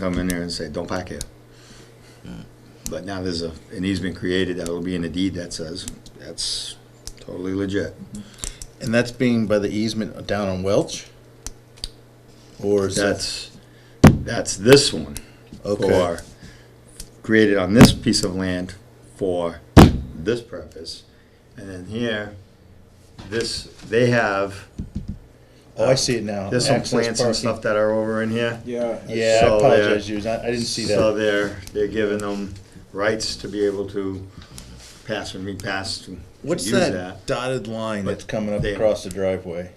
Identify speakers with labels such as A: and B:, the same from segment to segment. A: come in there and say, don't park here.
B: Mm.
A: But now there's a, an easement created that will be in the deed that says, that's totally legit.
B: And that's being by the easement down on Welch? Or is that,
A: That's, that's this one.
B: okay,
A: Or created on this piece of land for this purpose. And then here, this, they have,
B: oh, I see it now.
A: there's some
B: Access
A: plants and
B: parking.
A: stuff that are over in here.
C: Yeah.
B: Yeah, I
A: So there-
B: apologize, you, I I didn't see
A: So
B: that.
A: they're, they're giving them rights to be able to pass and repass to to
B: What's
A: use
B: that dotted line that's coming up
A: There.
B: across the driveway?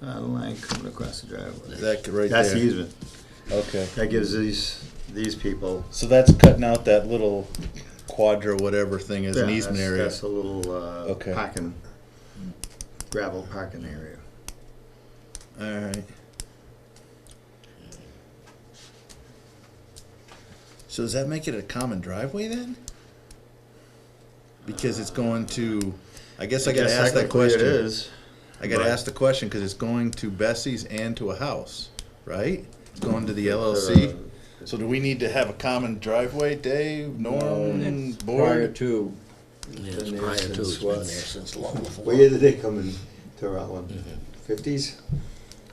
A: Uh, the line coming across the driveway.
B: Is that right
A: That's the
B: there?
A: easement.
B: Okay,
A: That gives these, these people.
B: so that's cutting out that little quadra, whatever thing is, an
A: Yeah,
B: easement
A: that's-
B: area.
A: That's a little, uh,
B: Okay.
A: parking, gravel parking area.
B: Alright. So does that make it a common driveway then? Because it's going to, I guess I gotta
A: Guess
B: ask that
A: technically
B: question.
A: It is.
B: I gotta
A: Right.
B: ask the question, cause it's going to Bessie's and to a house, right? It's going to the
A: Uh,
B: LLC. So do we need to have a common driveway, Dave, Norm,
C: Prior
B: board?
C: to,
D: Yeah,
A: Been
D: it's
A: there
D: prior to,
A: since
D: it's been
A: what?
D: there since long
A: What
D: before.
A: year did they come in to Rutland?
B: Mm-hmm.
A: Fifties?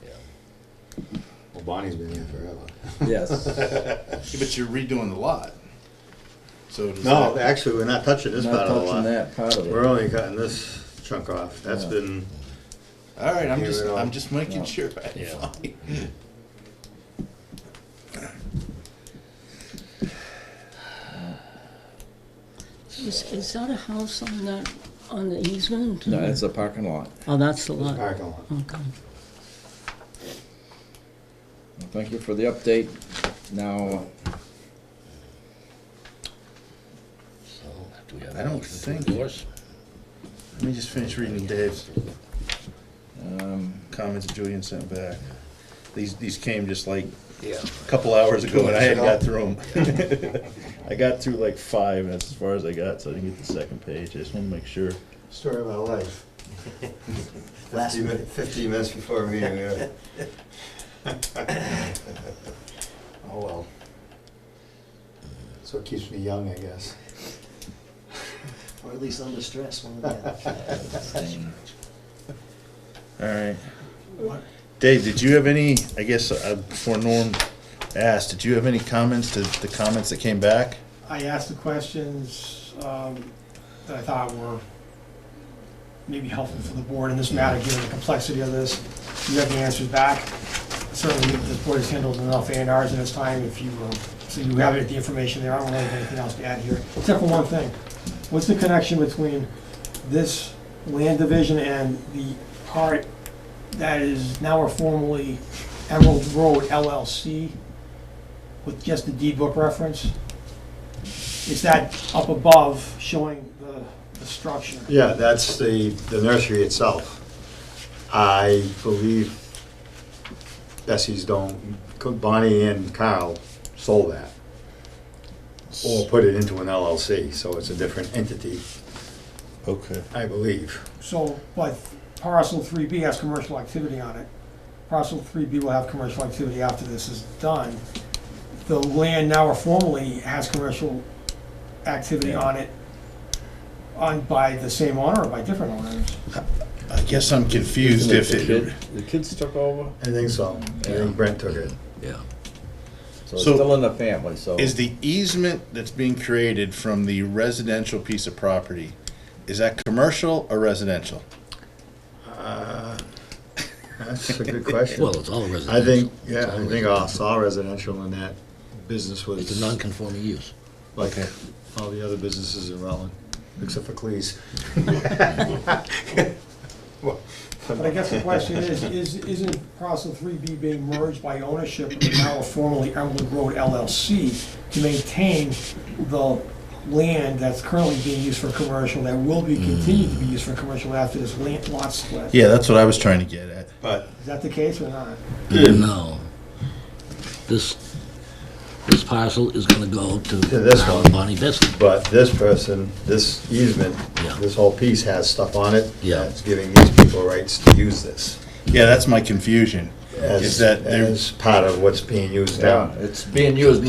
D: Yeah.
A: Well, Bonnie's been here forever.
C: yes.
B: Yeah, But you're redoing the lot. So does
A: No,
B: that,
A: actually, we're not touching this
C: Not
A: part of the
C: touching
A: lot.
C: that part of
A: We're
C: it.
A: only cutting this chunk off. That's
C: Yeah.
A: been,
B: alright, I'm
A: Here
B: just,
A: we are.
B: I'm just making
C: No.
B: sure.
D: Yeah.
E: Is, is that a house on that, on the easement?
C: No, it's a parking lot.
E: Oh, that's the
A: this
E: lot.
A: parking lot.
E: Okay.
C: Thank you for the update. Now,
D: So, do we have
B: I
D: a
B: don't
D: motion to
B: think-
D: endorse?
B: Let me just finish reading Dave's
C: um,
B: comments that Julian sent back. These, these came just like
D: Yeah.
B: a couple hours ago and I hadn't got
D: minutes
B: through them. I got through like five, and that's as far as I got, so I didn't get the second page. I just wanna make sure.
A: Story of my life. Last minute. Fifteen minutes before a meeting, yeah. Oh, well. So it keeps me young, I guess.
F: Or at least under stress, one or the other.
B: Alright. Dave, did you have any, I guess, uh, before Norm asked, did you have any comments to the comments that came back?
G: I asked the questions um, that I thought were maybe helpful for the board in this matter, given the complexity of this. You have the answers back. Certainly, this board has handled enough A and Rs in its time, if you, um, so you have it, the information there. I don't really have anything else to add here, except for one thing. What's the connection between this land division and the part that is now or formerly Emerald Road LLC with just the deed book reference? It's that up above showing the, the structure.
A: Yeah, that's the, the nursery itself. I believe Bessie's don't, Bonnie and Carl sold that. Or put it into an LLC, so it's a different entity,
B: Okay.
A: I believe.
G: So, but parcel three B has commercial activity on it. Parcel three B will have commercial activity after this is done. The land now or formerly has commercial activity on it on, by the same owner or by different owners.
B: I guess I'm confused if
C: the
B: it,
C: kid- The kids took over,
A: I think so. I think Brent took it.
D: Yeah.
C: so it's
B: So-
C: still in the family, so.
B: is the easement that's being created from the residential piece of property, is that commercial or residential?
A: Uh, That's a good question.
D: Well, it's all residential.
A: I think,
D: It's
A: yeah,
D: all
A: I think I saw residential in that business
D: residential. It's
A: was
D: a non-conforming use.
A: like
B: Okay.
A: all the other businesses in Rutland, except for Cleese.
G: But I guess the question is, is, isn't parcel three B being merged by ownership of the now formerly Emerald Road LLC to maintain the land that's currently being used for commercial, that will be continued to be used for commercial after this land lot split?
B: Yeah, that's what I was trying to get at.
A: But
G: Is that the case or not?
D: No. This, this parcel is gonna go to
A: To this
D: Carl
A: one.
D: and Bonnie Bessie.
A: But this person, this easement,
D: Yeah.
A: this whole piece has stuff on it.
D: Yeah.
A: It's giving these people rights to use this.
B: Yeah, that's my confusion.
A: as-
B: Is that there's
A: As part of what's being used now.
C: Yeah, it's being used